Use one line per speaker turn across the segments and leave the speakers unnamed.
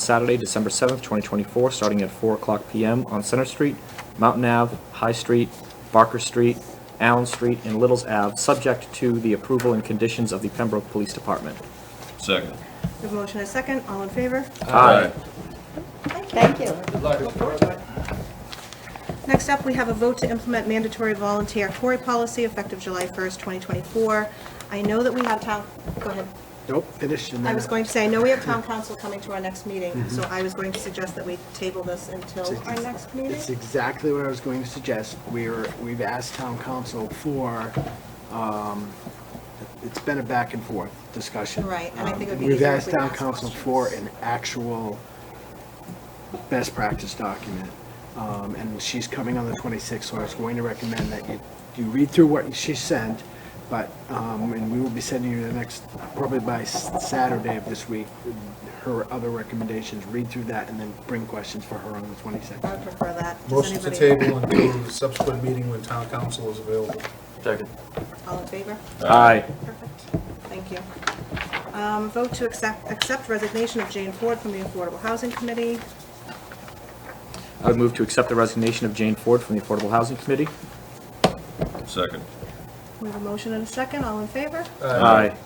Saturday, December 7th, 2024, starting at 4 o'clock PM on Center Street, Mountain Ave, High Street, Barker Street, Allen Street, and Littles Ave, subject to the approval and conditions of the Pembroke Police Department.
Second.
We have a motion and a second, all in favor?
Aye.
Thank you.
Look forward to it. Next up, we have a vote to implement mandatory volunteer Tory policy effective July 1st, 2024. I know that we have town, go ahead.
Nope, finished and
I
then
was going to say, I know we have town council coming to our next meeting,
Mm-hmm.
so I was going to suggest that we table this until our next meeting.
It's exactly what I was going to suggest. We're, we've asked town council for, um, it's been a back and forth discussion.
Right, and I think it would be
Um, We've
easier if
asked
we
town
asked
council
questions.
for an actual best practice document. Um, and she's coming on the twenty-sixth, so I was going to recommend that you, you read through what she sent, but, um, and we will be sending you the next, probably by s- Saturday of this week, her other recommendations, read through that, and then bring questions for her on the twenty-sixth.
I would prefer that. Does
Motion to
anybody-
table until the subsequent meeting when town council is available.
All in favor?
Aye.
Perfect, thank you. Um, Vote to accept, accept resignation of Jane Ford from the Affordable Housing Committee.
I would move to accept the resignation of Jane Ford from the Affordable Housing Committee.
Second.
We have a motion and a second, all in favor?
Aye.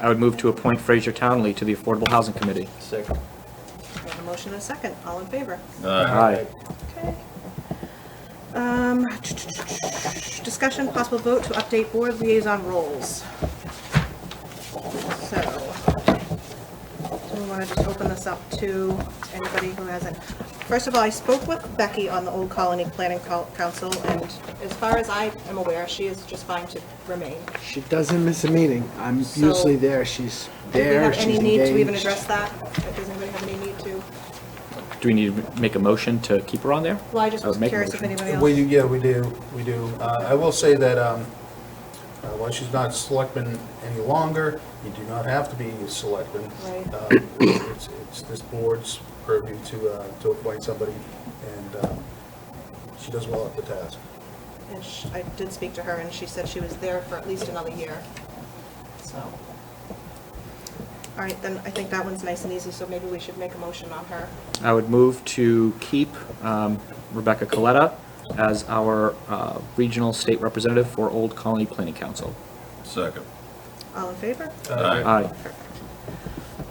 I would move to appoint Fraser Townley to the Affordable Housing Committee.
We have a motion and a second, all in favor?
Uh,
Aye.
Aye.
Okay. Um, Discussion, possible vote to update board liaison roles. So, do we want to just open this up to anybody who hasn't? First of all, I spoke with Becky on the Old Colony Planning Col- Council, and as far as I am aware, she is just fine to remain.
She doesn't miss a meeting. I'm
So-
usually there, she's
Do we
there,
have
she's
any
engaged.
need to even address that? Like, Does anybody have any need to?
Do we need to make a motion to keep her on there?
Well, I just
I would
was
make a
curious if
motion.
anybody else.
We, yeah, we do, we do. Uh, I will say that, um, uh, while she's not selectman any longer, you do not have to be a selectman.
Right.
Um, It's, it's this board's purview to, uh, to appoint somebody, and, um, she does well at the task.
And sh- I did speak to her, and she said she was there for at least another year, so. All right, then I think that one's nice and easy, so maybe we should make a motion on her.
I would move to keep um, Rebecca Coletta as our uh, regional state representative for Old Colony Planning Council.
Second.
All in favor?
Uh,
Aye.
Aye.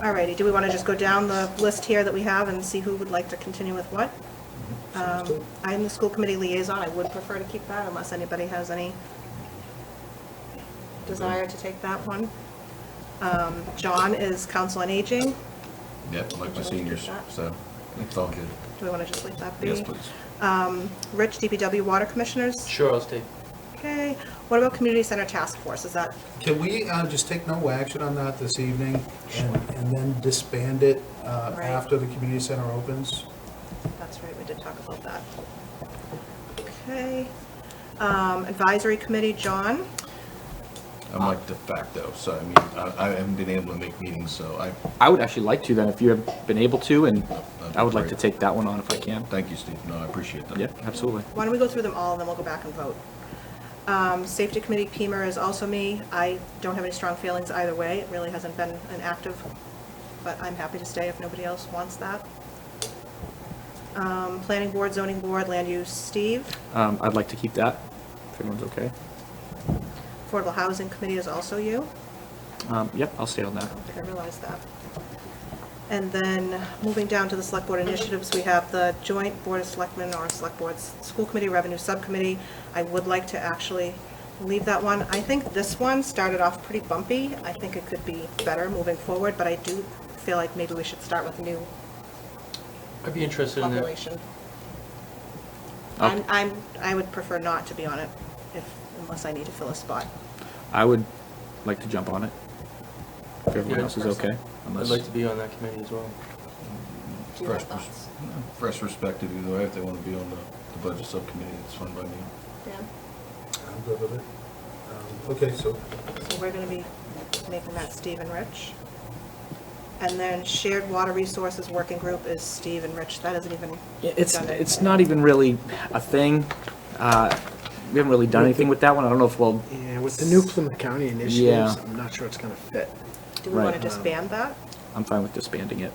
All righty, do we want to just go down the list here that we have and see who would like to continue with what? Um, I'm the school committee liaison, I would prefer to keep that unless anybody has any desire to take that one. Um, John is council on aging,
Yep, I like my seniors, so it's all good.
do we want to just leave that be?
Yes, please.
um, Rich, DPW Water Commissioners?
Sure, I'll stay.
Okay, what about Community Center Task Force, is that,
Can we uh, just take no action on that this evening and and then disband it uh,
Right.
after the community center opens?
that's right, we did talk about that. Okay, um, Advisory Committee, John,
I'm like de facto, so I mean, I, I haven't been able to make meetings, so I,
I would actually like to then, if you have been able to, and
be
I would like to
great.
take that one on if I can.
thank you, Steve. No, I appreciate that.
Yeah, absolutely.
why don't we go through them all, and then we'll go back and vote. Um, Safety Committee, Pemer is also me, I don't have any strong feelings either way, it really hasn't been an active, but I'm happy to stay if nobody else wants that. Um, Planning Board, Zoning Board, Land Use, Steve,
Um, I'd like to keep that, if everyone's okay.
Affordable Housing Committee is also you.
Um, Yep, I'll stay on that.
I didn't realize that. And then, moving down to the Select Board initiatives, we have the Joint Board of Selectmen or Select Boards, School Committee, Revenue Subcommittee. I would like to actually leave that one. I think this one started off pretty bumpy. I think it could be better moving forward, but I do feel like maybe we should start with a new
I'd be interested in that.
population.
I'll-
I'm, I'm, I would prefer not to be on it, if, unless I need to fill a spot.
I would like to jump on it, if everyone
Yeah.
else is okay.
I'd
unless-
like to be on that committee as well.
Do you have
Fresh pers-
thoughts?
Fresh perspective either way, if they want to be on the, the budget subcommittee, it's fun by me.
Dan?
I'm good with it. Um, Okay, so
So we're gonna be making that Steve and Rich. And then Shared Water Resources Working Group is Steve and Rich, that isn't even.
Yeah, It's,
done
it's
anything.
not even really a thing. Uh, We haven't really done anything with that one. I don't know if we'll,
Yeah, with the new Plymouth County initiatives,
Yeah.
I'm not sure it's gonna fit.
Do we wanna
right.
disband that?
I'm fine with disbanding it.